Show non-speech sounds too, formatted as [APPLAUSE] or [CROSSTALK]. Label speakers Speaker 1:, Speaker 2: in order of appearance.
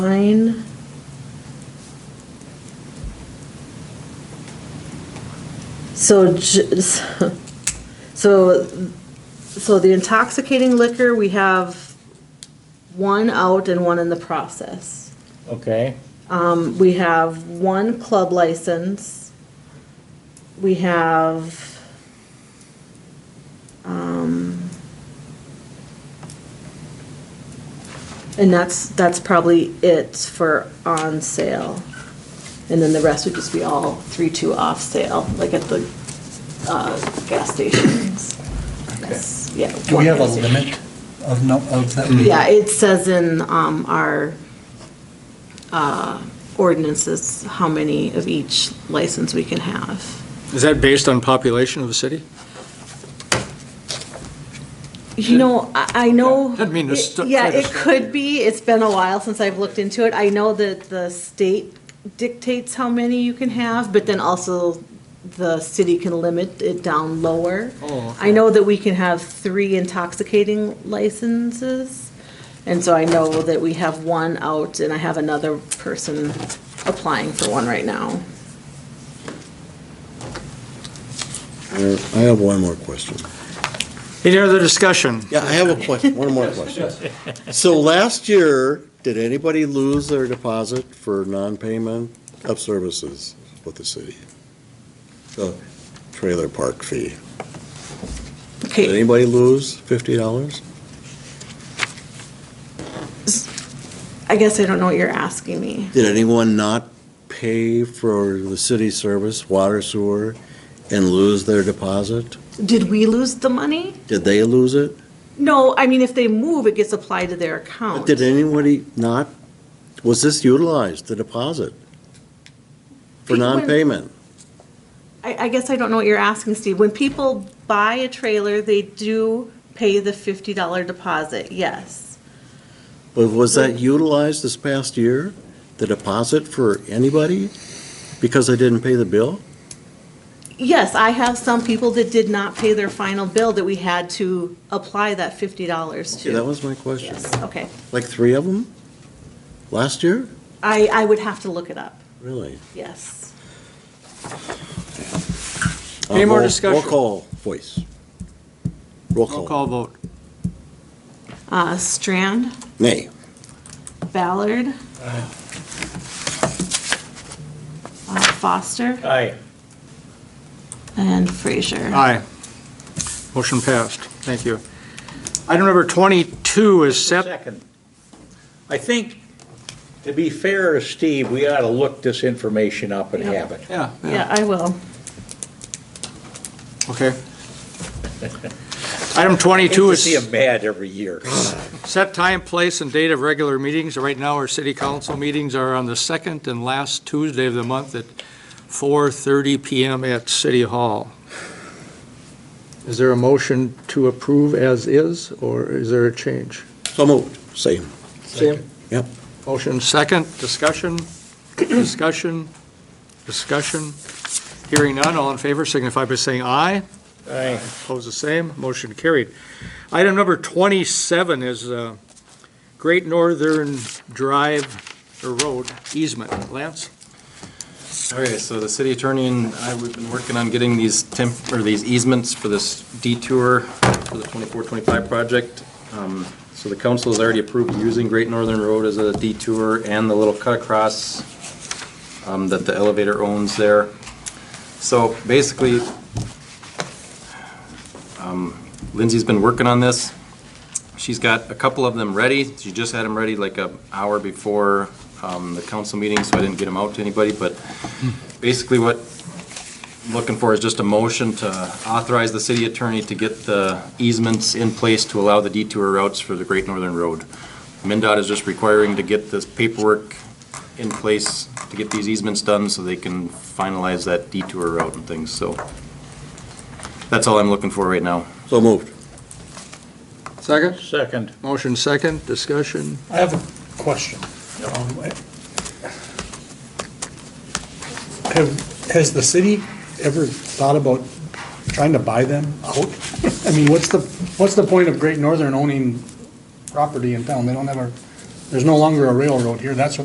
Speaker 1: Nine. So, j- so, so the intoxicating liquor, we have one out and one in the process.
Speaker 2: Okay,
Speaker 1: Um, we have one club license. We have, um, and that's, that's probably it for on sale. And then the rest would just be all three, two off sale, like at the, uh, gas stations. Yes, yeah.
Speaker 3: Do we have a
Speaker 1: one gas station.
Speaker 3: limit of, no of that?
Speaker 1: Yeah, it says in um, our uh, ordinances how many of each license we can have.
Speaker 4: Is that based on population of the city?
Speaker 1: You know, I I know.
Speaker 4: Didn't mean to stu-
Speaker 1: Yeah,
Speaker 4: try to
Speaker 1: it
Speaker 4: stu-
Speaker 1: could be. It's been a while since I've looked into it. I know that the state dictates how many you can have, but then also the city can limit it down lower.
Speaker 4: Oh,
Speaker 1: I know that we can have three intoxicating licenses, and so I know that we have one out, and I have another person applying for one right now.
Speaker 5: Uh, I have one more question.
Speaker 4: Any other discussion?
Speaker 5: Yeah, I have a question, one more question. So last year, did anybody lose their deposit for non-payment of services with the city? The trailer park fee. Did
Speaker 1: Okay,
Speaker 5: anybody lose fifty dollars?
Speaker 1: I guess I don't know what you're asking me.
Speaker 5: Did anyone not pay for the city service, water, sewer, and lose their deposit?
Speaker 1: Did we lose the money?
Speaker 5: Did they lose it?
Speaker 1: No, I mean, if they move, it gets applied to their account.
Speaker 5: Did anybody not, was this utilized, the deposit? For
Speaker 1: People in-
Speaker 5: non-payment?
Speaker 1: I, I guess I don't know what you're asking, Steve. When people buy a trailer, they do pay the fifty dollar deposit, yes.
Speaker 5: But was that utilized this past year, the deposit for anybody, because they didn't pay the bill?
Speaker 1: Yes, I have some people that did not pay their final bill that we had to apply that fifty dollars
Speaker 5: See,
Speaker 1: to.
Speaker 5: That was my question.
Speaker 1: Yes, okay.
Speaker 5: Like three of them? Last year?
Speaker 1: I, I would have to look it up,
Speaker 5: Really?
Speaker 1: yes.
Speaker 4: Any more
Speaker 5: Uh, roll-
Speaker 4: discussion?
Speaker 5: Roll call, voice. Roll
Speaker 4: Roll
Speaker 5: call.
Speaker 4: call vote.
Speaker 1: Uh, Strand,
Speaker 5: Nay.
Speaker 1: Ballard. Uh, Foster
Speaker 2: aye.
Speaker 1: and Frazier.
Speaker 4: Aye. Motion passed. Thank you. Item number 22 is set.
Speaker 2: Second, I think, to be fair to Steve, we ought to look this information up and
Speaker 1: Yeah.
Speaker 2: have it.
Speaker 4: Yeah,
Speaker 1: Yeah, I will.
Speaker 2: [LAUGHS]
Speaker 4: okay. Item 22
Speaker 2: Hate to see
Speaker 4: is
Speaker 2: him mad every year.
Speaker 4: set time, place, and date of regular meetings. Right now, our city council meetings are on the second and last Tuesday of the month at 4:30 PM at City Hall. Is there a motion to approve as is, or is there a change?
Speaker 5: So moved. Same.
Speaker 4: Sam?
Speaker 5: Yep.
Speaker 4: Motion second, discussion, discussion, discussion. Hearing none, all in favor signify by saying aye.
Speaker 2: Aye.
Speaker 4: Opposed, the same, motion carried. Item number 27 is uh, Great Northern Drive or Road easement. Lance?
Speaker 6: Okay, so the city attorney and I, we've been working on getting these temp, or these easements for this detour for the 24-25 project. Um, So the council has already approved using Great Northern Road as a detour and the little cut across um, that the elevator owns there. So basically, um, Lindsay's been working on this. She's got a couple of them ready. She just had them ready like an hour before um, the council meeting, so I didn't get them out to anybody, but basically what I'm looking for is just a motion to authorize the city attorney to get the easements in place to allow the detour routes for the Great Northern Road. MinDOT is just requiring to get this paperwork in place to get these easements done so they can finalize that detour route and things, so that's all I'm looking for right now.
Speaker 5: So moved.
Speaker 4: Second.
Speaker 2: Second,
Speaker 4: Motion second, discussion.
Speaker 3: I have a question. Um, I- Have, has the city ever thought about trying to buy them out? I mean, what's the, what's the point of Great Northern owning property in town? They don't have a There's no longer a railroad here, that's what